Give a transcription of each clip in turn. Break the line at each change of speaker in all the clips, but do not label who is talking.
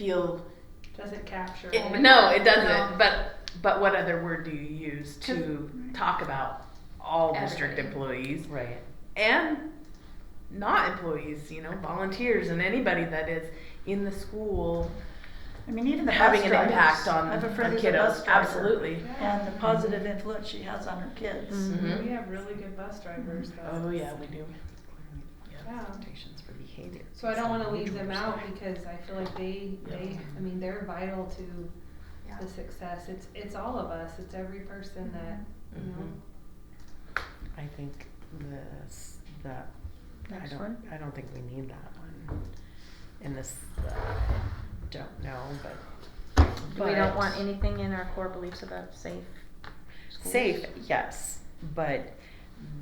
feel
Doesn't capture. all the
it, no
words.
it doesn't
No.
but but what other word do you use to
To-
talk about all district
Everything.
employees
Right.
and not employees you know volunteers and anybody that is in the school
I mean, even the
having
bus
an
drivers.
impact on
I have a
on
friend who's a bus
kiddos
driver,
absolutely
Yeah.
And the positive influence she has on her kids.
Mhm.
We have really good bus drivers though.
oh yeah we do
Yeah.
Expectations for behavior.
So I don't wanna
Some
leave them
individuals.
out because I feel like they, they,
Yeah.
I mean, they're vital to the success. It's, it's all of us. It's every person that, you
Mm-hmm.
know.
Mhm. I think this, that, I
Next
don't,
one.
I don't think we need that one. In this, uh, don't know, but.
We
but-
don't want anything in our core beliefs about safe. schools.
Safe, yes, but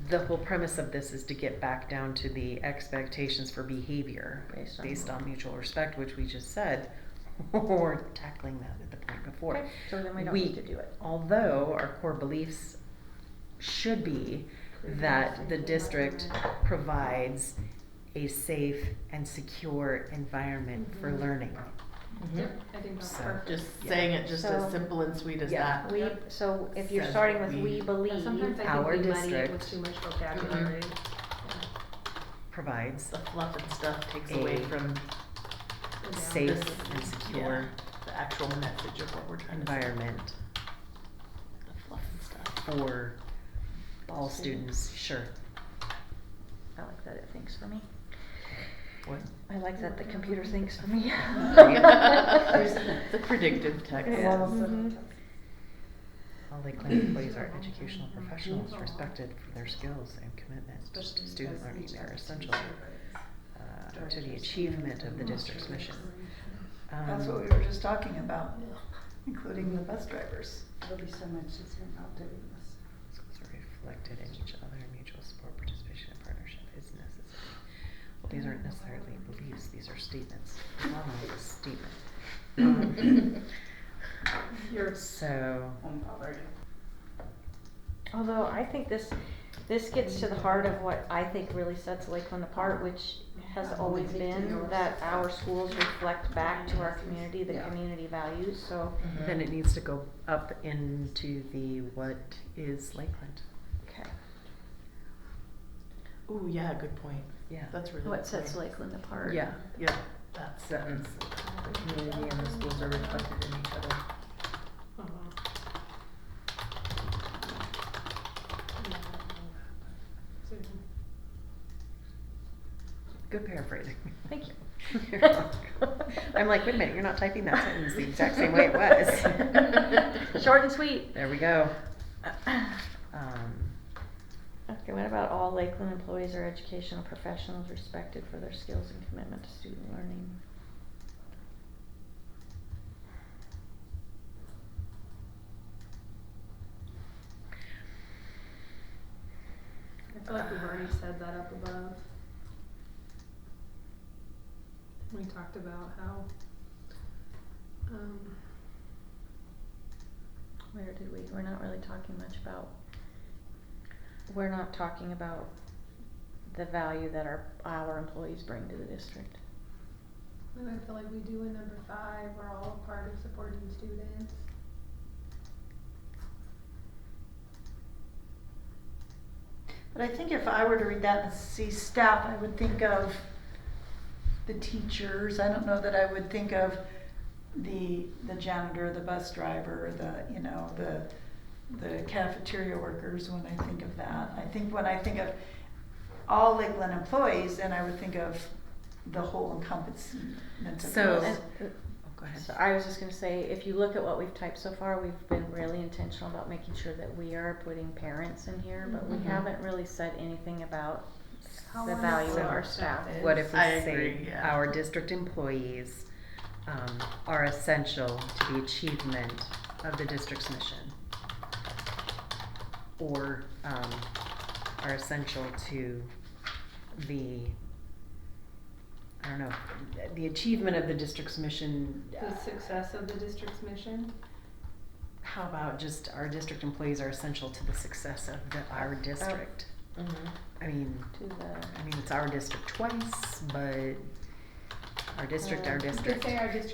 the whole premise of this is to get back down to the expectations for behavior
Based on-
based on mutual respect, which we just said. We're tackling that at the point before.
Okay, So then we don't
We-
need to do it.
Although our core beliefs should be that the district provides a safe and secure environment for
Mhm.
learning.
Mhm.
Yep, I think that's
Mm-hmm. So-
perfect.
just
Yeah.
saying it just as
So-
simple and sweet as
Yeah.
that
We,
Yep.
so if you're
Uh, Says
starting with
we.
we
Yeah, Sometimes
believe,
I
our
think we muddy it
district- Mm-hmm.
with too much vocabulary.
Provides
the fluff and stuff takes away
A-
from
Yeah.
safe
This-
and secure
the actual message of what we're trying to say.
environment
The fluff and stuff.
for all students, sure.
I like that it thinks for me.
What?
I like that the computer thinks for me.
There's the predictive text.
Yeah.
Mm-hmm.
Mhm.
All Lakeland employees are educational professionals respected for their skills and commitment to student learning. They're essential uh, to the achievement of the district's mission.
That's what we
Um,
were just talking about, including the bus drivers.
There'll be so much that's involved in this.
Schools are reflected in each other, mutual support, participation, and partnership is necessary. Well, these aren't necessarily beliefs, these are statements. Normally a statement. Um,
Your
So,
home poverty.
Although I think this, this gets to the heart of what I think really sets Lakeland apart, which has always been that our schools reflect back to our community, the
Yeah.
community values, so.
then it needs to go up into the what is Lakeland?
Okay.
Ooh, yeah, good point.
Yeah.
That's really
What
good
Oh, sets
point.
Lakeland apart?
Yeah,
Yeah, that sentence. The community and the schools are reflected in each other.
Oh, wow. Yeah, I don't know. So-
good paraphrasing.
Thank you.
You're welcome. I'm like, wait a minute, you're not typing that sentence the exact same way it was.
Short and sweet.
There we go. Um,
Okay, what about all Lakeland employees are educational professionals respected for their skills and commitment to student learning?
I feel like we've already said that up above. We talked about how, um,
Where did we, we're not really talking much about, we're not talking about the value that our, our employees bring to the district.
and I feel like we do in number five, we're all a part of supporting students.
But I think if I were to read that and see staff, I would think of the teachers. I don't know that I would think of the, the janitor, the bus driver, the, you know, the, the cafeteria workers when I think of that. I think when I think of all Lakeland employees, then I would think of the whole encompassment of this.
So-
And-
oh, go ahead.
So I was just gonna say, if you look at what we've typed so far, we've been really intentional about making sure that we are putting parents in here, but we
Mhm.
haven't really said anything about
How
the value of
wonderful
our
our staff
staff.
is.
What if we
I
say
agree, yeah.
our district employees um, are essential to the achievement of the district's mission? Or um, are essential to the, I don't know, the achievement of the district's mission?
The success of the district's mission,
How about just our district employees are essential to the success of the, our district? I mean.
to the,
I mean, it's our district twice, but our district,
Uh,
our
you
you could
district.
say our district